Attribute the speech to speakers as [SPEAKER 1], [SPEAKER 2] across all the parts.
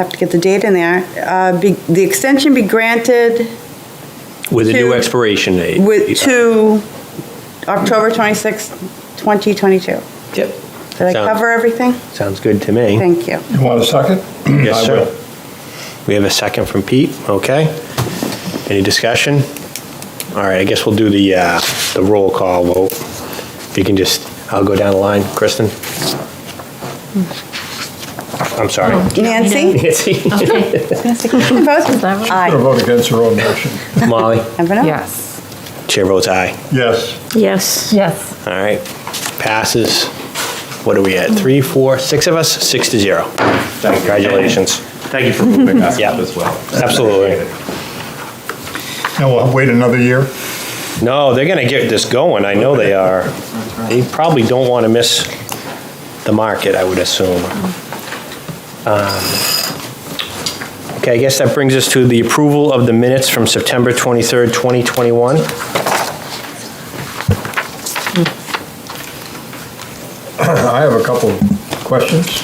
[SPEAKER 1] have to get the date in there. Uh, be- The extension be granted
[SPEAKER 2] With a new
[SPEAKER 1] To-
[SPEAKER 2] expiration date.
[SPEAKER 1] with, to October 26th, 2022.
[SPEAKER 2] Yep.
[SPEAKER 1] Did I
[SPEAKER 2] Sound-
[SPEAKER 1] cover everything?
[SPEAKER 2] Sounds good to me.
[SPEAKER 1] Thank you.
[SPEAKER 3] You want a second?
[SPEAKER 2] Yes,
[SPEAKER 3] I
[SPEAKER 2] sir.
[SPEAKER 3] will.
[SPEAKER 2] We have a second from Pete, okay. Any discussion? All right, I guess we'll do the, uh, the roll call vote. If you can just, I'll go down the line. Kristen? I'm sorry.
[SPEAKER 1] Oh. Nancy?
[SPEAKER 2] Nancy?
[SPEAKER 4] Okay,
[SPEAKER 1] Vote?
[SPEAKER 4] that
[SPEAKER 3] I'm
[SPEAKER 4] right?
[SPEAKER 1] Aye.
[SPEAKER 3] going to vote against your own motion.
[SPEAKER 1] Oh.
[SPEAKER 2] Molly?
[SPEAKER 1] Never know.
[SPEAKER 4] yes.
[SPEAKER 2] Chair votes aye.
[SPEAKER 3] Yes.
[SPEAKER 5] Yes.
[SPEAKER 4] Yes.
[SPEAKER 2] All right, passes. What are we at? Three, four, six of us? Six to zero. Congratulations.
[SPEAKER 6] Thank you for moving us
[SPEAKER 2] Yeah.
[SPEAKER 6] up as well.
[SPEAKER 2] Absolutely.
[SPEAKER 3] Now we'll wait another year.
[SPEAKER 2] No, they're going to get this going. I know they are. They probably don't want to miss the market, I would assume. Um, Okay, I guess that brings us to the approval of the minutes from September 23rd, 2021.
[SPEAKER 3] I have a couple of questions.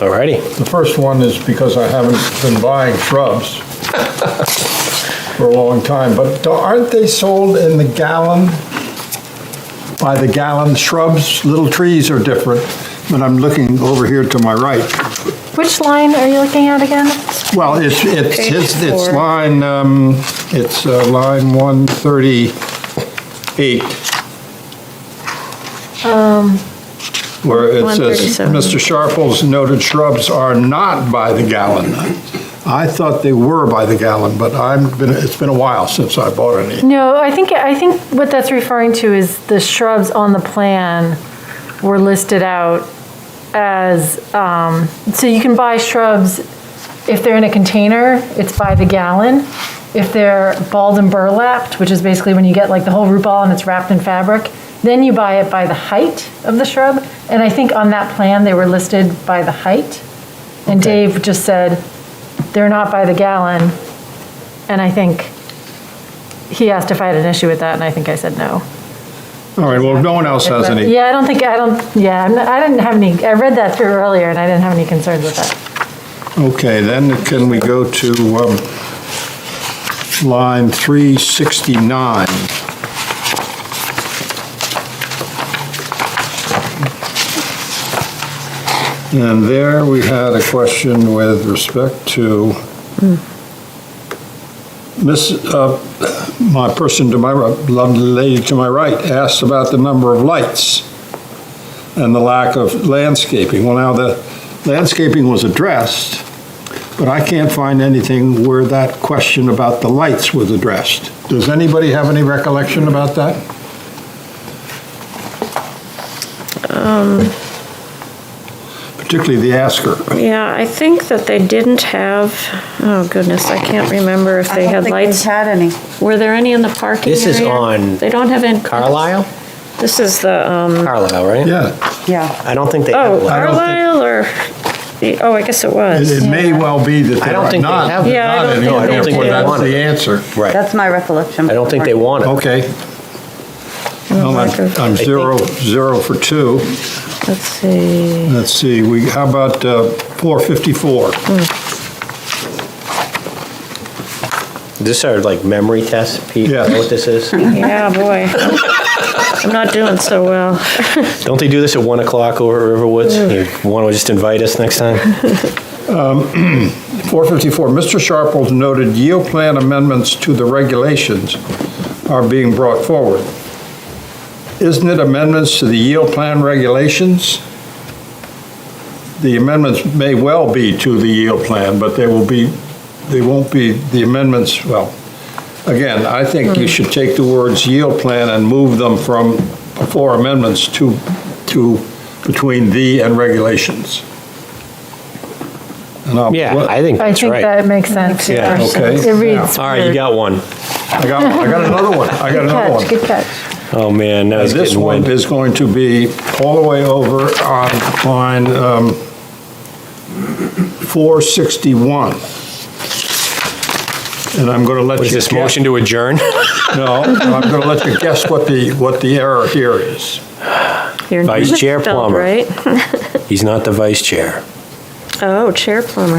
[SPEAKER 2] All righty.
[SPEAKER 3] The first one is because I haven't been buying shrubs for a long time, but aren't they sold in the gallon? By the gallon, shrubs, little trees are different, but I'm looking over here to my right.
[SPEAKER 4] Which line are you looking at again?
[SPEAKER 3] Well, it's, it's,
[SPEAKER 1] Page
[SPEAKER 3] it's it's
[SPEAKER 1] four.
[SPEAKER 3] line, um, it's uh, line 138.
[SPEAKER 1] Um,
[SPEAKER 3] Where it says,
[SPEAKER 5] 137.
[SPEAKER 3] Mr. Sharples noted shrubs are not by the gallon. I thought they were by the gallon, but I'm, been it's been a while since I bought any.
[SPEAKER 4] No, I think, I think what that's referring to is the shrubs on the plan were listed out as, um, so you can buy shrubs, if they're in a container, it's by the gallon. If they're balled and burlapped, which is basically when you get like the whole root ball and it's wrapped in fabric, then you buy it by the height of the shrub. And I think on that plan, they were listed by the height. And Dave just said, they're not by the gallon. And I think he asked if I had an issue with that, and I think I said no.
[SPEAKER 3] All right, well, no one else has any.
[SPEAKER 4] Yeah, I don't think, I don't, yeah, I'm not- I didn't have any, I read that through earlier, and I didn't have any concerns with that.
[SPEAKER 3] Okay, then can we go to um, line 369? And there we had a question with respect to Miss, uh, my person to my, right- lovely lady to my right asked about the number of lights and the lack of landscaping. Well, now, the landscaping was addressed, but I can't find anything where that question about the lights was addressed. Does anybody have any recollection about that?
[SPEAKER 5] Um.
[SPEAKER 3] Particularly the asker.
[SPEAKER 5] Yeah, I think that they didn't have, oh goodness, I can't remember if
[SPEAKER 1] I
[SPEAKER 5] they
[SPEAKER 1] don't
[SPEAKER 5] had
[SPEAKER 1] think
[SPEAKER 5] lights.
[SPEAKER 1] we've had any.
[SPEAKER 5] Were there any in the parking area?
[SPEAKER 2] This is on
[SPEAKER 5] They don't have in.
[SPEAKER 2] Carlisle?
[SPEAKER 5] This is the, um,
[SPEAKER 2] Carlisle, right?
[SPEAKER 3] Yeah,
[SPEAKER 1] Yeah.
[SPEAKER 2] I don't think they have
[SPEAKER 5] oh,
[SPEAKER 2] one.
[SPEAKER 3] I don't think-
[SPEAKER 5] Carlisle or, oh, I guess it
[SPEAKER 3] it
[SPEAKER 5] was.
[SPEAKER 3] it may well be that
[SPEAKER 2] I
[SPEAKER 3] there
[SPEAKER 2] don't
[SPEAKER 3] are
[SPEAKER 2] think they have
[SPEAKER 3] not,
[SPEAKER 2] it.
[SPEAKER 5] Yeah, I
[SPEAKER 3] not
[SPEAKER 5] don't
[SPEAKER 3] any,
[SPEAKER 5] think they
[SPEAKER 3] therefore
[SPEAKER 5] do.
[SPEAKER 3] that's the answer.
[SPEAKER 2] Right.
[SPEAKER 1] That's my recollection.
[SPEAKER 2] I don't think they want it.
[SPEAKER 3] Okay. Well, I'm I'm
[SPEAKER 2] think-
[SPEAKER 3] zero, zero for two.
[SPEAKER 5] Let's see.
[SPEAKER 3] Let's see, we, how about uh, 454?
[SPEAKER 2] This are like memory tests, Pete? You
[SPEAKER 3] Yeah.
[SPEAKER 2] know what this is?
[SPEAKER 5] Yeah, boy. I'm not doing so well.
[SPEAKER 2] Don't they do this at 1 o'clock over at Riverwoods? You want to just invite us next time?
[SPEAKER 3] 454, Mr. Sharples noted yield plan amendments to the regulations are being brought forward. Isn't it amendments to the yield plan regulations? The amendments may well be to the yield plan, but they will be, they won't be, the amendments, well, again, I think you should take the words yield plan and move them from before amendments to, to, between the and regulations. And I'll-
[SPEAKER 2] Yeah, I think
[SPEAKER 4] I
[SPEAKER 2] that's
[SPEAKER 4] think
[SPEAKER 2] right.
[SPEAKER 4] that makes sense.
[SPEAKER 2] Yeah,
[SPEAKER 3] okay.
[SPEAKER 4] It reads.
[SPEAKER 2] All right, you got one.
[SPEAKER 3] I got, I got another one, I got
[SPEAKER 4] Good
[SPEAKER 3] another
[SPEAKER 4] catch,
[SPEAKER 3] one.
[SPEAKER 4] good catch.
[SPEAKER 2] Oh, man, now it's
[SPEAKER 3] This
[SPEAKER 2] getting
[SPEAKER 3] one
[SPEAKER 2] wind.
[SPEAKER 3] is going to be all the way over on line um, 461. And I'm going to let you
[SPEAKER 2] What is this,
[SPEAKER 3] guess-
[SPEAKER 2] motion to adjourn?
[SPEAKER 3] No, I'm going to let you guess what the, what the error here is.
[SPEAKER 5] Your
[SPEAKER 2] Vice
[SPEAKER 5] name is
[SPEAKER 2] Chair
[SPEAKER 5] spelled
[SPEAKER 2] Plummer.
[SPEAKER 5] Right?
[SPEAKER 2] He's not the vice chair.
[SPEAKER 5] Oh, Chair Plummer.